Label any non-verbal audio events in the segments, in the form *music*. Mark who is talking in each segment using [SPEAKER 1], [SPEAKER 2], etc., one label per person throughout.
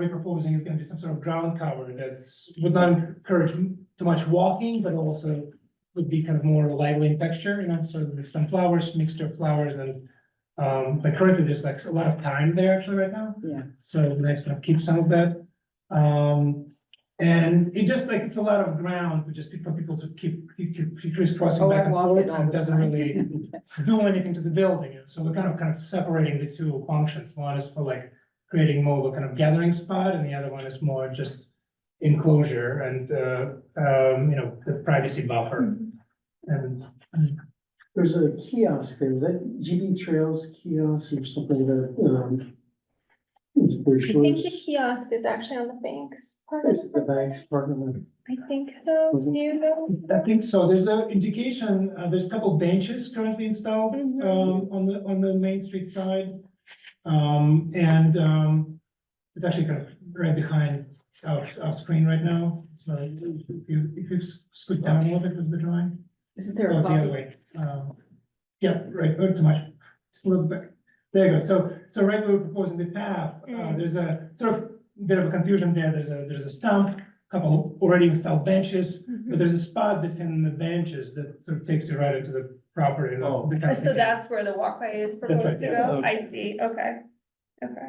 [SPEAKER 1] we're proposing is gonna be some sort of ground cover that's, would not encourage m- too much walking, but also would be kind of more lively in texture, you know, so with some flowers, mixture of flowers and um, like currently, there's like a lot of time there actually right now.
[SPEAKER 2] Yeah.
[SPEAKER 1] So it'd be nice to keep some of that. Um, and it just like, it's a lot of ground to just for people to keep, keep, keep crisscrossing
[SPEAKER 2] Oh, I
[SPEAKER 1] back and
[SPEAKER 2] walk it
[SPEAKER 1] forth,
[SPEAKER 2] all
[SPEAKER 1] and it
[SPEAKER 2] the
[SPEAKER 1] doesn't
[SPEAKER 2] time.
[SPEAKER 1] really do anything to the building, so we're kind of, kind of separating the two functions, one is for like creating more of a kind of gathering spot, and the other one is more just enclosure and, uh, um, you know, the privacy buffer. And
[SPEAKER 3] There's a kiosk there, is that GB Trails kiosk or something like that, um. It's
[SPEAKER 4] I think the kiosk is actually on the bank's part of the,
[SPEAKER 3] the bank's apartment.
[SPEAKER 4] I think so,
[SPEAKER 3] Mhm.
[SPEAKER 4] do you know?
[SPEAKER 1] I think so, there's an indication, uh, there's a couple benches currently installed,
[SPEAKER 4] Mhm.
[SPEAKER 1] um, on the, on the Main Street side. Um, and, um, it's actually kind of right behind our, our screen right now, so if you, if you scoot down a little bit with the drawing.
[SPEAKER 2] *laughs* Isn't there
[SPEAKER 1] Oh,
[SPEAKER 2] a
[SPEAKER 1] the other
[SPEAKER 2] copy?
[SPEAKER 1] way. Um, Yeah, right, not too much, just a little bit. There you go. So, so right where we're proposing the path, uh,
[SPEAKER 4] Mm.
[SPEAKER 1] there's a sort of bit of a confusion there. There's a, there's a stump, couple already installed benches, but there's a spot between the benches that sort of takes you right into the property. you know,
[SPEAKER 3] Oh.
[SPEAKER 1] the kind of
[SPEAKER 4] Uh, So
[SPEAKER 1] thing.
[SPEAKER 4] that's where the walkway is
[SPEAKER 1] right,
[SPEAKER 4] proposed to
[SPEAKER 1] yeah.
[SPEAKER 4] go, I see, okay, okay.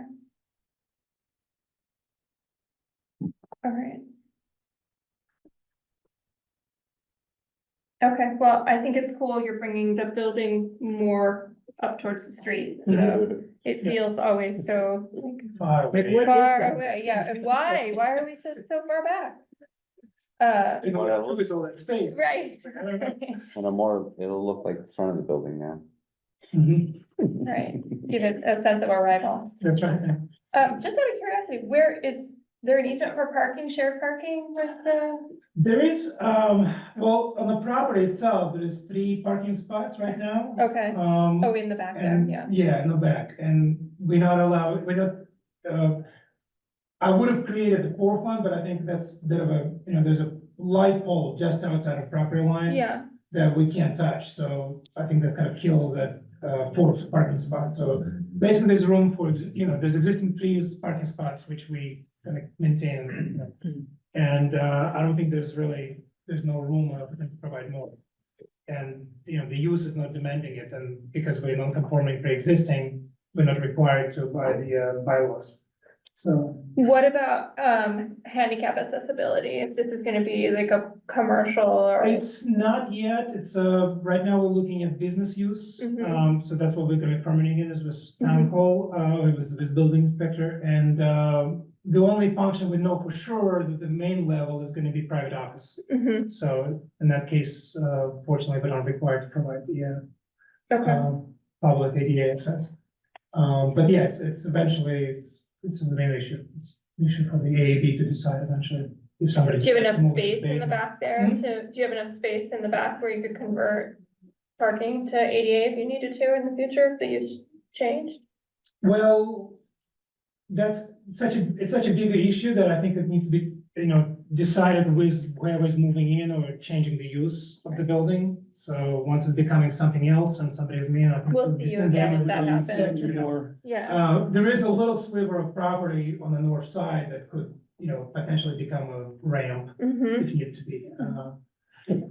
[SPEAKER 4] All right. Okay, well, I think it's cool you're bringing the building more up towards the street, so
[SPEAKER 1] Mm-hmm.
[SPEAKER 4] it
[SPEAKER 1] Yeah.
[SPEAKER 4] feels always so like
[SPEAKER 1] Far
[SPEAKER 2] Like,
[SPEAKER 1] away.
[SPEAKER 2] what- is
[SPEAKER 4] far
[SPEAKER 2] that?
[SPEAKER 4] away, yeah, and why, why are we so, so far back? Uh,
[SPEAKER 1] In order to lose all that space.
[SPEAKER 4] right. *laughs*
[SPEAKER 1] I don't know.
[SPEAKER 5] And a more, it'll look like the front of the building now.
[SPEAKER 1] Mhm,
[SPEAKER 4] Right, give it a sense of arrival.
[SPEAKER 1] That's right. yeah.
[SPEAKER 4] Um, just out of curiosity, where is there an easement for parking, shared parking with the?
[SPEAKER 1] There is, um, well, on the property itself, there is three parking spots right now.
[SPEAKER 4] Okay,
[SPEAKER 1] Um,
[SPEAKER 4] oh, in the back there,
[SPEAKER 1] And,
[SPEAKER 4] yeah.
[SPEAKER 1] yeah, in the back, and we not allow, we not, uh. I would have created the fourth one, but I think that's a bit of a, you know, there's a light pole just outside of property line.
[SPEAKER 4] Yeah,
[SPEAKER 1] That we can't touch, so I think that kind of kills that, uh, fourth parking spot, so basically there's room for, you know, there's existing three parking spots which we kind of maintain. you know.
[SPEAKER 2] Mm.
[SPEAKER 1] And, uh, I don't think there's really, there's no room uh, to provide more. And, you know, the use is not demanding it, and because we're non-conforming pre-existing, we're not required to by the uh, bylaws. So,
[SPEAKER 4] what about, um, handicap accessibility, if this is gonna be like a commercial or?
[SPEAKER 1] it's not yet, it's, uh, right now we're looking at business use.
[SPEAKER 4] Mhm.
[SPEAKER 1] Um, so that's what we're gonna be permitting it is with
[SPEAKER 4] Mm-hmm.
[SPEAKER 1] town hall, uh, it was with building inspector, and, um the only function we know for sure that the main level is gonna be private office.
[SPEAKER 4] Mhm,
[SPEAKER 1] So in that case, uh, fortunately, we're not required to provide the, uh,
[SPEAKER 4] okay,
[SPEAKER 1] um, public ADA access. Um, but yeah, it's, it's eventually, it's, it's the main issue. It's an issue for the AAB to decide eventually if somebody.
[SPEAKER 4] do you have
[SPEAKER 1] decides to
[SPEAKER 4] enough
[SPEAKER 1] move to
[SPEAKER 4] space in the
[SPEAKER 1] basement.
[SPEAKER 4] back there
[SPEAKER 1] Hmm?
[SPEAKER 4] to, do you have enough space in the back where you could convert? Parking to ADA if you needed to in the future, if the use changed?
[SPEAKER 1] Well, that's such a, it's such a bigger issue that I think it needs to be, you know, decided with whoever's moving in or changing the use of the building. So once it's becoming something else and somebody's, you know. I think
[SPEAKER 4] We'll
[SPEAKER 1] it'll
[SPEAKER 4] see
[SPEAKER 1] be-
[SPEAKER 4] you again if that
[SPEAKER 1] Yeah.
[SPEAKER 4] happens.
[SPEAKER 1] Yeah.
[SPEAKER 3] Or
[SPEAKER 4] Yeah,
[SPEAKER 1] Uh, there is a little sliver of property on the north side that could, you know, potentially become a ramp
[SPEAKER 4] mhm.
[SPEAKER 1] if need to be. uh, uh,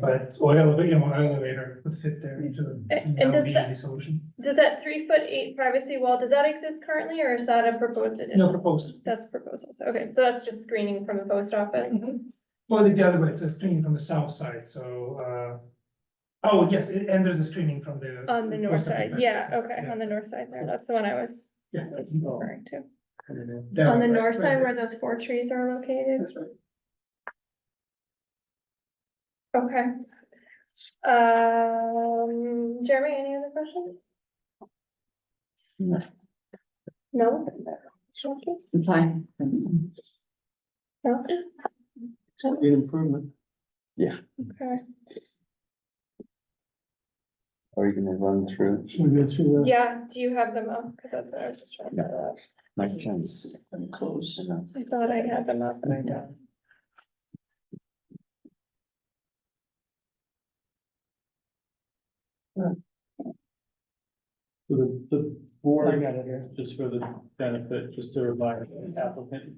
[SPEAKER 1] But, or elevator, you know, elevator would fit there into the,
[SPEAKER 4] A- and
[SPEAKER 1] that would
[SPEAKER 4] does
[SPEAKER 1] be
[SPEAKER 4] that-
[SPEAKER 1] easy solution.
[SPEAKER 4] Does that three foot eight privacy wall, does that exist currently or is that a proposed addition?
[SPEAKER 1] No proposed.
[SPEAKER 4] That's proposals, okay, so that's just screening from the post office,
[SPEAKER 1] Mm-hmm. Well, the other way, it's a screening from the south side, so, uh, oh, yes, a- and there's a screening from the.
[SPEAKER 4] on the north side, yeah, okay, on the north side there, that's the one I was
[SPEAKER 1] Yeah.
[SPEAKER 4] was
[SPEAKER 1] Oh,
[SPEAKER 4] referring to.
[SPEAKER 1] that
[SPEAKER 4] On
[SPEAKER 1] way,
[SPEAKER 4] the
[SPEAKER 1] right, right,
[SPEAKER 4] north side
[SPEAKER 1] right.
[SPEAKER 4] where those four trees are located,
[SPEAKER 1] That's right.
[SPEAKER 4] okay. Um, Jeremy, any other questions?
[SPEAKER 2] No.
[SPEAKER 4] No? Shocking?
[SPEAKER 2] I'm Fine. thanks.
[SPEAKER 4] No?
[SPEAKER 3] an improvement.
[SPEAKER 4] Okay.
[SPEAKER 5] Are you gonna run through
[SPEAKER 3] Should we go through that?
[SPEAKER 4] Yeah, do you have them up? Cause that's what I was just trying to. figure out.
[SPEAKER 5] my fence?
[SPEAKER 2] I'm close enough.
[SPEAKER 4] I thought I had them up.
[SPEAKER 2] but I don't.
[SPEAKER 3] So the, the
[SPEAKER 6] I
[SPEAKER 3] board,
[SPEAKER 6] got it here.
[SPEAKER 3] just for the benefit, just to remind the applicant,